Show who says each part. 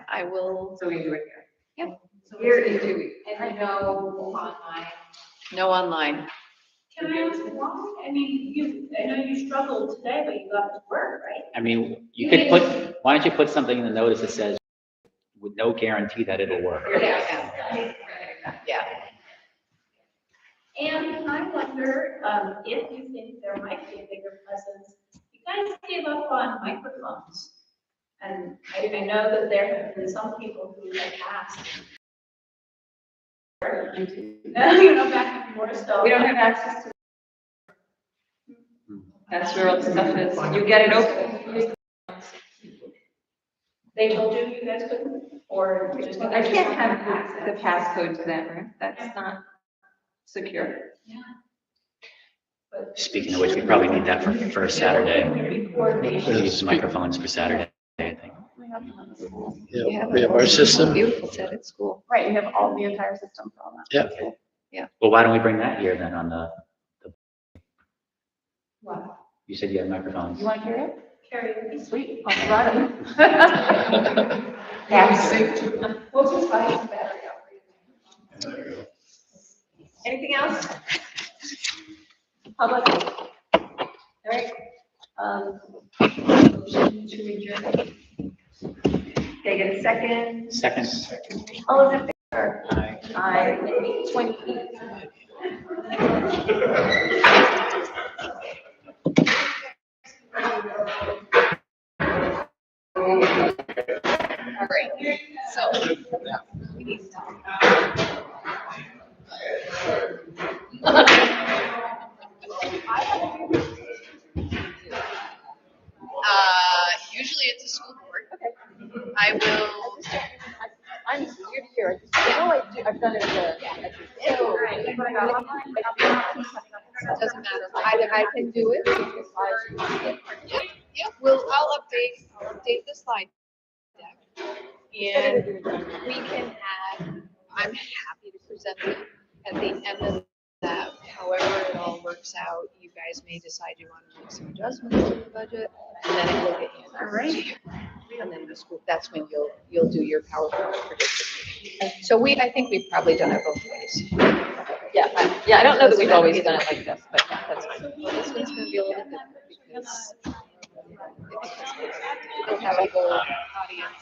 Speaker 1: I will
Speaker 2: So we can do it here.
Speaker 1: Yep.
Speaker 2: So Here in two weeks.
Speaker 3: And no online.
Speaker 1: know online.
Speaker 4: Can I ask why? I mean, you, I know you struggled today, but you got to work, right?
Speaker 5: I mean, you
Speaker 3: You
Speaker 5: could
Speaker 3: can-
Speaker 5: put, why don't you put something in the notice that says, with no guarantee that it'll work?
Speaker 3: Yes.
Speaker 4: And I wonder, um, if you think there might be a bigger presence, you guys gave up on microphones. And I, I know that there have been some people who have asked. You know, back and forth, so.
Speaker 2: We don't have access to. That's where all the stuff is. You get it open.
Speaker 4: They told you you guys couldn't, or just.
Speaker 2: I can't have the passcode to that room. That's not secure.
Speaker 5: Speaking of which, we probably need that for, for Saturday.
Speaker 4: Record
Speaker 5: We
Speaker 4: these.
Speaker 5: need some microphones for Saturday, I think.
Speaker 1: Yeah,
Speaker 6: Yeah, we have our system.
Speaker 1: Beautiful set at school.
Speaker 7: Right, you have all the entire system for all that.
Speaker 6: Yeah,
Speaker 5: Well, why don't we bring that here then on the, the,
Speaker 4: Wow.
Speaker 5: you said you had microphones.
Speaker 7: You want to hear it?
Speaker 4: Carrie,
Speaker 7: Sweet, I'll try it.
Speaker 4: we'll just buy you a battery up.
Speaker 2: Anything else?
Speaker 7: Public. All right. Um,
Speaker 2: They get a second.
Speaker 5: Second.
Speaker 7: all of it,
Speaker 5: Aye.
Speaker 7: I, twenty-eight.
Speaker 1: All right, so. we need to talk about- Uh, usually it's a school board. I will,
Speaker 7: I'm here to hear. No, I do, I've done it
Speaker 1: it doesn't matter, I, I can do it. Yep, yep, well, I'll update, I'll update the slide deck. And we can add, I'm happy to present it at the end of that, however it all works out, you guys may decide you want to make some adjustments to the budget, and then it will get handed. All right. And then the school, that's when you'll, you'll do your PowerPoint prediction. meeting. So we, I think we've probably done it both ways.
Speaker 7: Yeah, I- yeah, I don't know that we've always done it like this, but yeah, that's fine.
Speaker 1: This one's gonna be a little different because it's- we'll have a whole audience